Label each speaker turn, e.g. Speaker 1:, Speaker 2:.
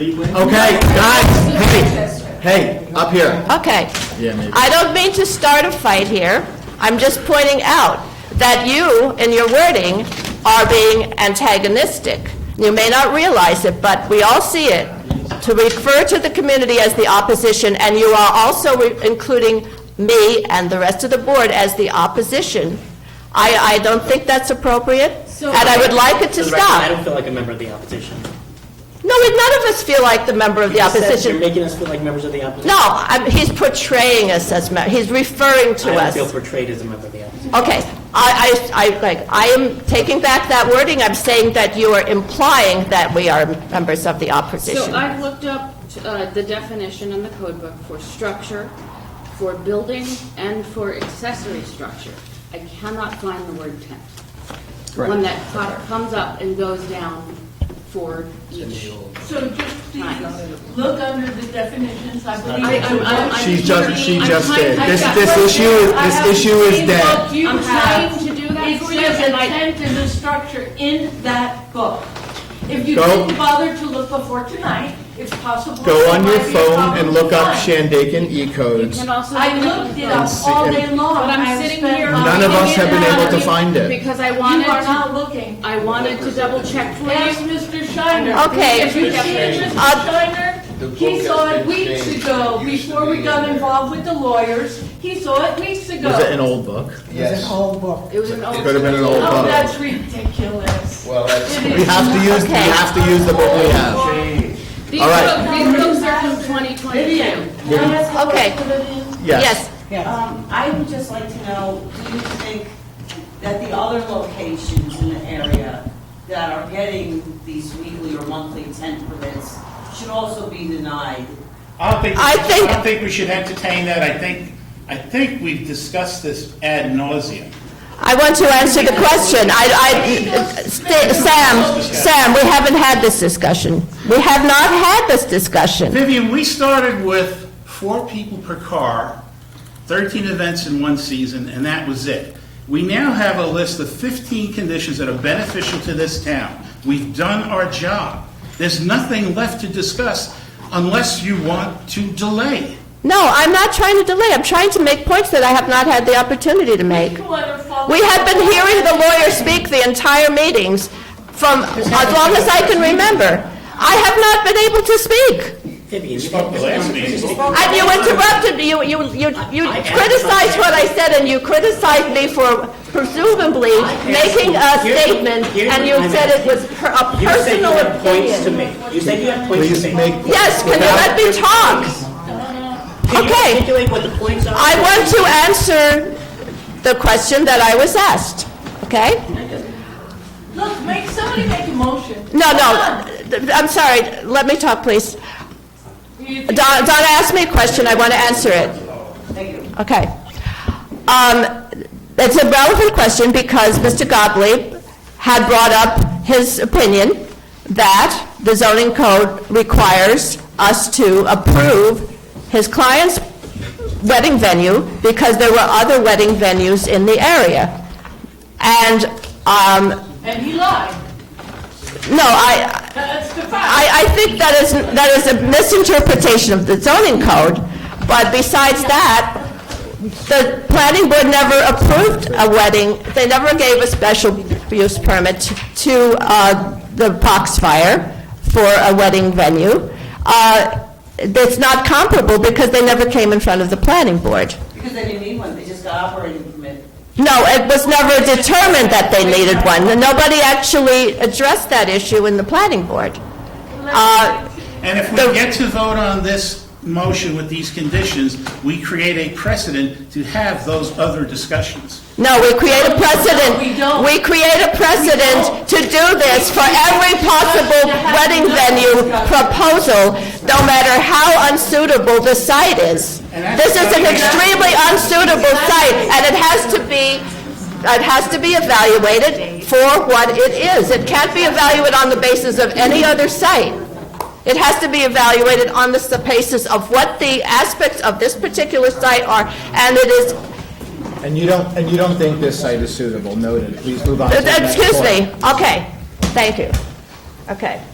Speaker 1: Okay, guys, hey, hey, up here.
Speaker 2: Okay.
Speaker 1: Yeah, maybe.
Speaker 2: I don't mean to start a fight here. I'm just pointing out that you, in your wording, are being antagonistic. You may not realize it, but we all see it. To refer to the community as the opposition, and you are also re- including me and the rest of the board as the opposition. I, I don't think that's appropriate,
Speaker 3: So-
Speaker 2: and I would like it to
Speaker 4: For the record, I
Speaker 2: stop.
Speaker 4: don't feel like a member of the opposition.
Speaker 2: No, we- none of us feel like the member of the
Speaker 4: You said
Speaker 2: opposition.
Speaker 4: You're making us feel like members of the opposition.
Speaker 2: No, I'm- he's portraying us as, ma- he's referring to
Speaker 4: I don't
Speaker 2: us.
Speaker 4: feel portrayed as a member of the opposition.
Speaker 2: Okay, I, I, I, like, I am taking back that wording, I'm saying that you are implying that we are members of the
Speaker 3: So
Speaker 2: opposition.
Speaker 3: I've looked up uh, the definition in the code book for structure, for building, and for accessory structure. I cannot find the word tent. When that co- comes up and goes down for each.
Speaker 5: So just please, look under the definitions, I believe.
Speaker 3: I- I'm- I'm- I'm
Speaker 1: She just- she
Speaker 3: literally-
Speaker 1: just
Speaker 3: I'm
Speaker 1: did.
Speaker 3: trying-
Speaker 1: This-
Speaker 3: I've
Speaker 1: this
Speaker 3: got-
Speaker 1: issue is-
Speaker 5: I
Speaker 1: this
Speaker 5: haven't
Speaker 1: issue is
Speaker 5: seen
Speaker 1: dead.
Speaker 5: what you
Speaker 3: I'm
Speaker 5: have.
Speaker 3: trying to do that
Speaker 5: It
Speaker 3: for you,
Speaker 5: says
Speaker 3: and I-
Speaker 5: a tent is a structure in that book. If you
Speaker 1: Go-
Speaker 5: didn't bother to look before tonight, it's possible.
Speaker 1: Go
Speaker 5: it
Speaker 1: on your
Speaker 5: might be a
Speaker 1: phone
Speaker 5: problem
Speaker 1: and look up
Speaker 5: tonight.
Speaker 1: Shandaken E E-codes.
Speaker 3: Can also.
Speaker 5: I looked it up
Speaker 1: see-
Speaker 5: all day long.
Speaker 3: But I'm
Speaker 5: I've
Speaker 3: sitting
Speaker 5: spent
Speaker 3: here.
Speaker 5: my-
Speaker 1: None of us have been able to find it.
Speaker 3: Because I
Speaker 5: You
Speaker 3: wanted
Speaker 5: are
Speaker 3: to,
Speaker 5: not looking.
Speaker 3: I wanted to double check for
Speaker 5: Ask
Speaker 3: you.
Speaker 5: Mr. Shiner.
Speaker 2: Okay.
Speaker 5: If you see Mr.
Speaker 2: Uh,
Speaker 5: Shiner, he saw it weeks ago, before we got involved with the lawyers. He saw it weeks ago.
Speaker 1: Was it an old book?
Speaker 6: Yes,
Speaker 3: It was an
Speaker 1: Could have
Speaker 3: old,
Speaker 1: been an old
Speaker 5: Oh,
Speaker 1: book.
Speaker 5: that's ridiculous.
Speaker 6: well, that's.
Speaker 5: It is.
Speaker 1: We have to use, we have to use the book we have.
Speaker 3: these
Speaker 1: All right.
Speaker 3: books, these books are from 2022.
Speaker 5: Can I ask a
Speaker 2: Okay.
Speaker 5: question, Vivian?
Speaker 1: Yes.
Speaker 7: Um, I would just like to know, do you think that the other locations in the area that are getting these weekly or monthly tent permits should also be denied?
Speaker 8: I don't think,
Speaker 2: I think-
Speaker 8: I don't think we should entertain that. I think, I think we've discussed this ad nauseum.
Speaker 2: I want to answer the question, I, I, sta- Sam, Sam, we haven't had this discussion. We have not had this discussion.
Speaker 8: Vivian, we started with four people per car, 13 events in one season, and that was it. We now have a list of 15 conditions that are beneficial to this town. We've done our job. There's nothing left to discuss unless you want to delay.
Speaker 2: No, I'm not trying to delay, I'm trying to make points that I have not had the opportunity to make.
Speaker 5: You wanna follow-
Speaker 2: We have been hearing the lawyer speak the entire meetings from, as long as I can remember. I have not been able to speak.
Speaker 4: Vivian, you
Speaker 8: spoke the last meeting.
Speaker 2: And you interrupted, me. you, you, you you
Speaker 4: I- I-
Speaker 2: criticized what I said, and you criticized me for presumably making a
Speaker 4: Here's-
Speaker 2: statement,
Speaker 4: here's
Speaker 2: and
Speaker 4: what
Speaker 2: you
Speaker 4: I'm
Speaker 2: said it was per- a
Speaker 4: You said you
Speaker 2: personal
Speaker 4: have points to
Speaker 2: opinion.
Speaker 4: make. You said you have points to
Speaker 1: Please
Speaker 4: make.
Speaker 1: make,
Speaker 2: Yes, can you let me talk?
Speaker 4: Can you
Speaker 2: Okay.
Speaker 4: articulate what the points are?
Speaker 2: I want to answer the question that I was asked, okay?
Speaker 5: Look, make, somebody make a motion.
Speaker 2: No, no,
Speaker 5: Come
Speaker 2: I'm sorry, let me talk, please.
Speaker 5: on. You
Speaker 2: Don, Donna asked me a question, I want to answer it. Okay. Um, It's a relevant question because Mr. Gottlieb had brought up his opinion that the zoning code requires us to approve his client's wedding venue because there were other wedding venues in the area. And, um,
Speaker 5: And he lied.
Speaker 2: no, I,
Speaker 5: That's the fact.
Speaker 2: I, I think that is, that is a misinterpretation of the zoning code, but besides that, the planning board never approved a wedding, they never gave a special use permit to uh, the Foxfire for a wedding venue. Uh, It's not comparable because they never came in front of the planning board.
Speaker 7: Because they didn't need one, they just got operating permit.
Speaker 2: No, it was never determined that they needed one, and nobody actually addressed that issue in the planning board. Uh,
Speaker 8: And if we
Speaker 2: The-
Speaker 8: get to vote on this motion with these conditions, we create a precedent to have those other discussions.
Speaker 2: No, we create a precedent.
Speaker 5: We don't.
Speaker 2: We create a precedent to do this for every possible wedding venue proposal, no matter how unsuitable the site is. This is an extremely unsuitable site, and it has to be, it has to be evaluated for what it is. It can't be evaluated on the basis of any other site. It has to be evaluated on the s- basis of what the aspects of this particular site are, and it is
Speaker 1: and you don't, and you don't think this site is suitable, noted. Please move on to the next
Speaker 2: Excuse
Speaker 1: point.
Speaker 2: me, okay, thank you, okay.